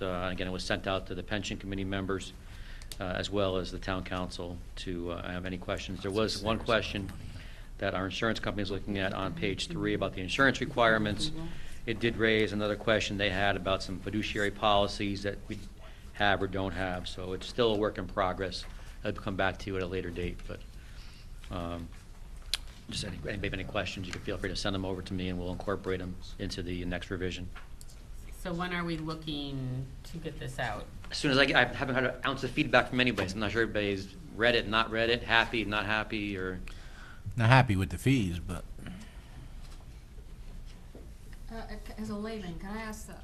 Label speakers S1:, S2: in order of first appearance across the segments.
S1: uh, again, it was sent out to the pension committee members uh, as well as the town council to uh, have any questions. There was one question that our insurance company is looking at on page three about the insurance requirements. It did raise another question they had about some fiduciary policies that we have or don't have, so it's still a work in progress. I'll come back to you at a later date, but um, just any, anybody have any questions, you can feel free to send them over to me and we'll incorporate them into the next revision.
S2: So when are we looking to get this out?
S1: As soon as I get, I haven't had an ounce of feedback from anybody, so I'm not sure everybody's read it, not read it, happy, not happy, or,
S3: Not happy with the fees, but
S4: Uh, As a layman, can I ask, the-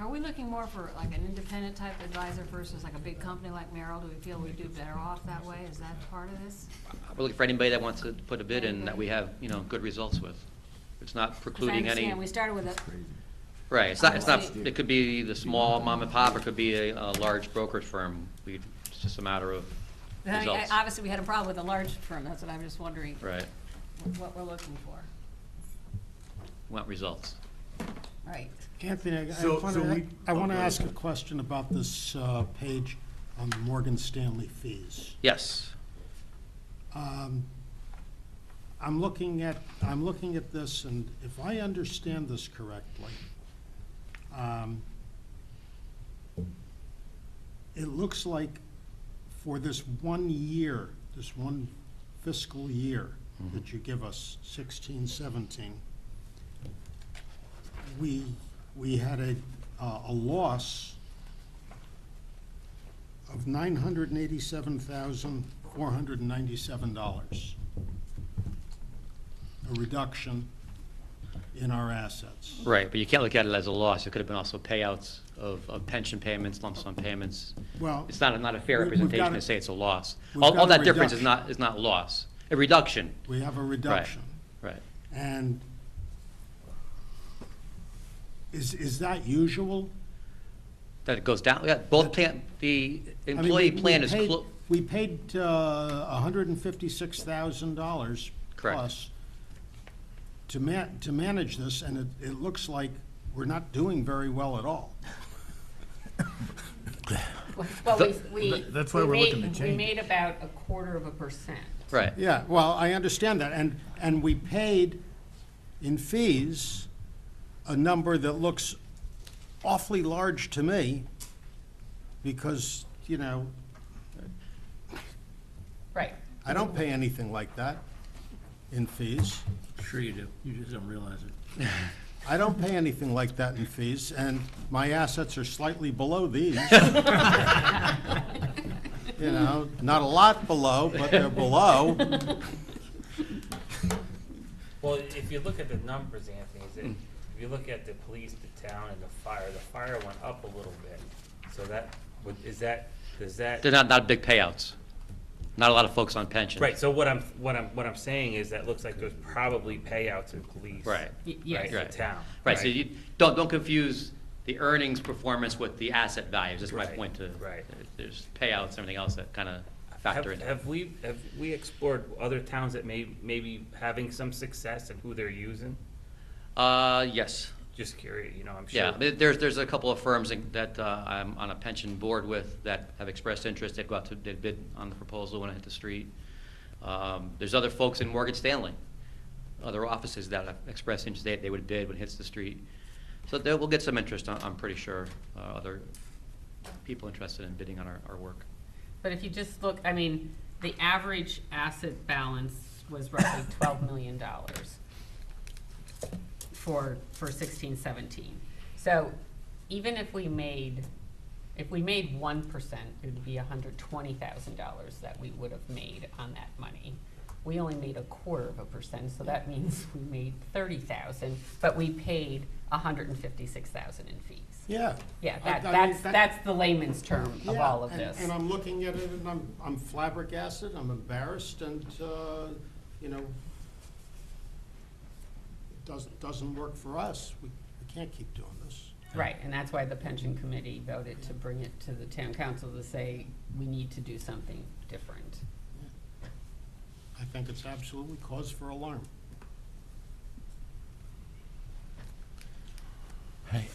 S4: are we looking more for like an independent type advisor versus like a big company like Merrill? Do we feel we do better off that way? Is that part of this?
S1: we're looking for anybody that wants to put a bid in that we have, you know, good results with. It's not
S4: 'Cause I
S1: precluding any,
S4: understand We started with a,
S1: right, it's not, it's not,
S4: Obviously-
S1: it could be the small mom and pop, it could be a, a large brokerage firm. We, it's just a matter of
S4: I mean, I-
S1: results.
S4: obviously, we had a problem with a large firm, that's what I'm just wondering.
S1: Right,
S4: wh- What we're looking for.
S1: want results.
S4: Right.
S5: Anthony, I- I
S6: So-
S5: want
S6: so
S5: to,
S6: we-
S5: I want to
S6: oh, go
S5: ask a
S6: ahead.
S5: question about this uh, page on the Morgan Stanley fees.
S1: Yes,
S5: Um, I'm looking at, I'm looking at this, and if I understand this correctly, um, it looks like for this one year, this one fiscal year that you give us, sixteen, seventeen, we, we had a, uh, a loss of nine hundred and eighty-seven thousand, four hundred and ninety-seven dollars. A reduction in our assets.
S1: right, but you can't look at it as a loss. It could have been also payouts of, of pension payments, lump sum payments.
S5: Well,
S1: It's not, a- not a fair
S5: We- we've
S1: representation
S5: got
S1: to
S5: a-
S1: say it's a loss.
S5: we've
S1: All, all
S5: got a
S1: that difference is
S5: reduction.
S1: not, is not loss, a reduction,
S5: we have a reduction.
S1: right.
S5: And is, is that usual?
S1: That it goes down, yeah, both plan, the
S5: I mean,
S1: employee
S5: we- we
S1: plan is,
S5: paid-
S1: clo-
S5: We paid uh, a hundred and fifty-six thousand dollars
S1: Correct.
S5: plus to ma, to manage this, and it, it looks like we're not doing very well at all.
S2: Well, we,
S1: Th-
S2: we.
S6: th- that's why
S2: we
S6: we're
S2: made-
S6: looking to change
S2: We
S6: it.
S2: made about a quarter of a percent.
S1: right,
S5: Yeah, well, I understand that, and, and we paid in fees a number that looks awfully large to me, because, you know,
S2: Right.
S5: I don't pay anything like that in fees.
S6: Sure you do. You just don't realize it.
S5: I don't pay anything like that in fees, and my assets are slightly below these. You know, not a lot below, but they're below.
S7: Well, if you look at the numbers, Anthony, is it, if you look at the police, the town, and the fire, the fire went up a little bit. So that, would- is that, does that?
S1: they're not, not big payouts, not a lot of folks on pensions.
S7: Right, so what I'm, what I'm, what I'm saying is that looks like there's probably payouts in police.
S1: Right.
S2: Y- yes.
S7: Right, the town.
S1: Right, so you, don't, don't confuse the earnings performance with the asset values, that's my
S7: Right,
S1: point to.
S7: right.
S1: There's payouts, and everything else that kind of
S7: Have,
S1: factor into it.
S7: have we, have we explored other towns that may, maybe having some success and who they're using?
S1: Uh, yes.
S7: Just curious, you know, I'm sure.
S1: Yeah, there- there's, there's a couple of firms in- that uh, I'm on a pension board with that have expressed interest. They'd go out to, they'd bid on the proposal when it hit the street. Um, There's other folks in Morgan Stanley, other offices that have expressed interest, they, they would bid when it hits the street. So there, we'll get some interest, I'm I'm pretty sure, uh, other people interested in bidding on our, our work.
S2: But if you just look, I mean, the average asset balance was roughly twelve million dollars for, for sixteen, seventeen. So even if we made, if we made one percent, it would be hundred twenty thousand dollars that we would have made on that money. We only made a quarter of a percent, so that means we made thirty thousand, but we paid hundred and fifty-six thousand in fees.
S5: Yeah.
S2: Yeah,
S5: I-
S2: that,
S5: I mean,
S2: that's,
S5: that-
S2: that's the layman's term of
S5: Yeah,
S2: all of
S5: and-
S2: this.
S5: And I'm looking at it, and I'm, I'm flabbergasted, I'm embarrassed, and, uh, you know, it doesn't, doesn't work for us. We we can't keep doing this.
S2: Right, and that's why the pension committee voted to bring it to the town council to say, we need to do something different.
S5: I think it's absolutely cause for alarm.
S3: hey,